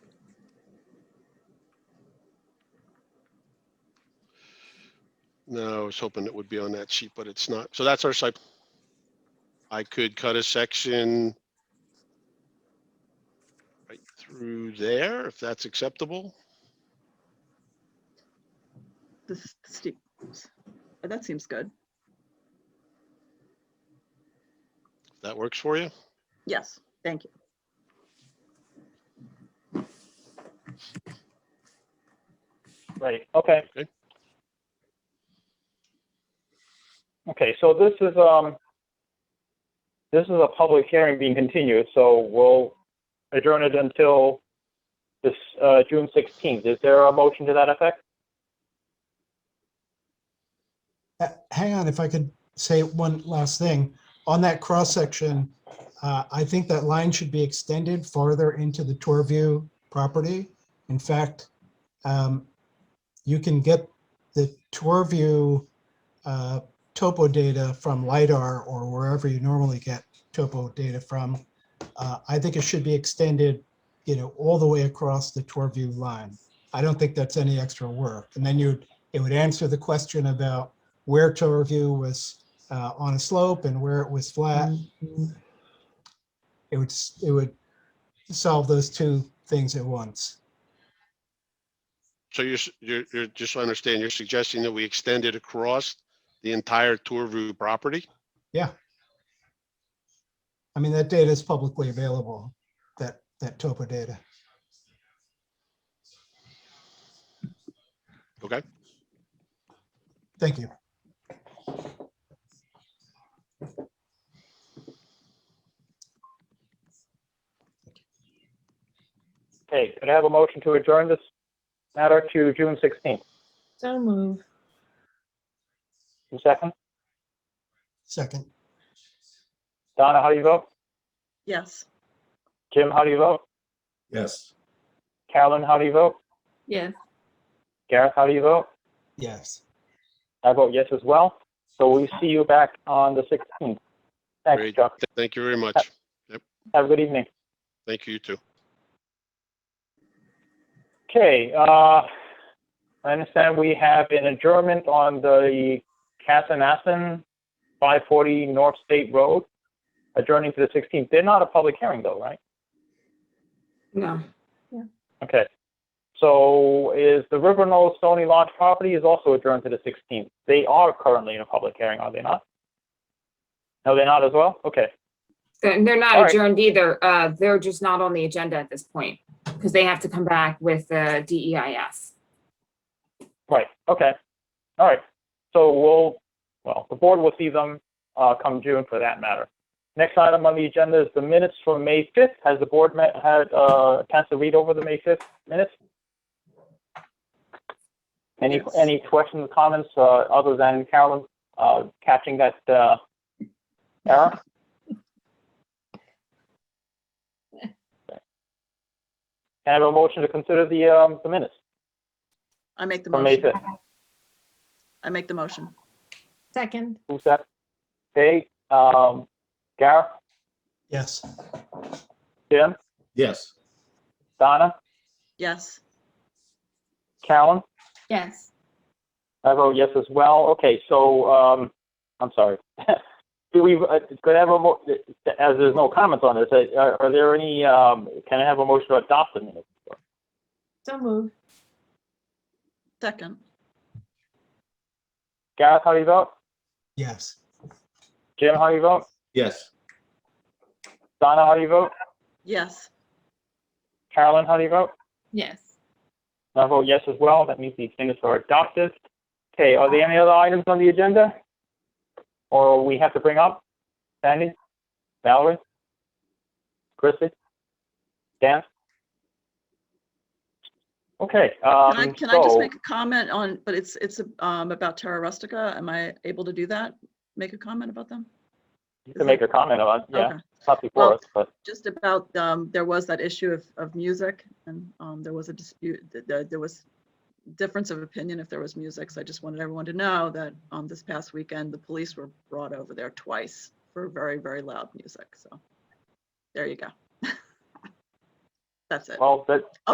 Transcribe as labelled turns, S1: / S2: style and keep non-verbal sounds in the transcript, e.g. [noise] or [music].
S1: No, I was hoping it would be on that sheet, but it's not. So that's our site. I could cut a section right through there, if that's acceptable.
S2: This, steep- Uh, that seems good.
S1: If that works for you.
S2: Yes, thank you.
S3: Right, okay.
S1: Okay.
S3: Okay, so this is, um, this is a public hearing being continued, so we'll adjourn it until this, uh, June sixteenth. Is there a motion to that effect?
S4: Uh, Hang on, if I could say one last thing. On that cross-section, uh, I think that line should be extended farther into the Torview property. In fact, um, you can get the Torview uh, topo data from LiDAR or wherever you normally get topo data from. Uh, I think it should be extended, you know, all the way across the Torview line. I don't think that's any extra work. And then you, it would answer the question about where to review was uh, on a slope and where it was flat. It would, s- it would solve those two things at once.
S1: So you're, s- you're, you're, just so I understand, you're suggesting that we extend it across the entire Tourview property?
S4: I mean, that data is publicly available, that, that topo data.
S1: Okay.
S4: Thank you.
S3: Okay, could I have a motion to adjourn this matter to June sixteenth?
S5: So move.
S3: Second?
S4: Second,
S3: Donna, how do you vote?
S2: Yes,
S3: Jim, how do you vote?
S6: Yes.
S3: Carolyn, how do you vote?
S5: Yes.
S3: Gareth, how do you vote?
S4: yes.
S3: I vote yes as well. So we see you back on the 16th. Thanks,
S1: Great.
S3: Chuck.
S1: Th- Thank you very much.
S3: Have a good evening.
S1: Thank you, you too.
S3: Okay, uh, I understand we have an adjournment on the Casanassen 540 North State Road, adjourning to the 16th. They're not a public hearing though, right?
S5: No.
S3: Okay. So is the River Knoll Stony Lodge property is also adjourned to the 16th. They are currently in a public hearing, are they not? No, they're not as well? Okay.
S7: They're, they're
S3: All
S7: not
S3: right.
S7: adjourned either. Uh, they're just not on the agenda at this point because they have to come back with the E DEIS.
S3: Right, okay. All right. So we'll, well, the board will see them uh, come June for that matter. Next item on the agenda is the minutes from May 5th. Has the board met, had uh, chance to read over the May 5th minutes? Any,
S5: Yes.
S3: any questions, comments, uh, other than Carolyn uh, catching that uh, error? Can I have a motion to consider the um, the minutes
S2: I make the
S3: from May
S2: motion.
S3: 5th?
S2: I make the motion.
S5: Second.
S3: Who's that? Hey, um, Gareth,
S4: Yes,
S3: Jim,
S6: Yes.
S3: Donna,
S2: Yes,
S3: Callan?
S5: Yes.
S3: I vote yes as well. Okay, so, um, I'm sorry. [laughs] Do we, uh, could I have a mo, as there's no comments on this, uh, are, are there any, um, can I have a motion to adopt the minutes?
S5: So move.
S2: second.
S3: Gareth, how do you vote?
S4: yes.
S3: Jim, how do you vote?
S6: Yes.
S3: Donna, how do you vote?
S2: Yes,
S3: Carolyn, how do you vote?
S5: Yes.
S3: I vote yes as well. That means these minutes are adopted. Okay, are there any other items on the agenda? Or we have to bring up? Sandy? Valerie? Chrissy? Dan? Okay, um,
S2: can I, can I just
S3: so,
S2: make a comment on, but it's, it's um, about Terra Rustica. Am I able to do that? Make a comment about them?
S3: you can make a comment on, yeah,
S2: Okay.
S3: it's not before
S2: Well-
S3: us, but,
S2: Just about, um, there was that issue of, of music and um, there was a dispute, th- there, there was difference of opinion if there was music. So I just wanted everyone to know that um, this past weekend, the police were brought over there twice for very, very loud music. So there you go. [laughs] That's it.
S3: well, that,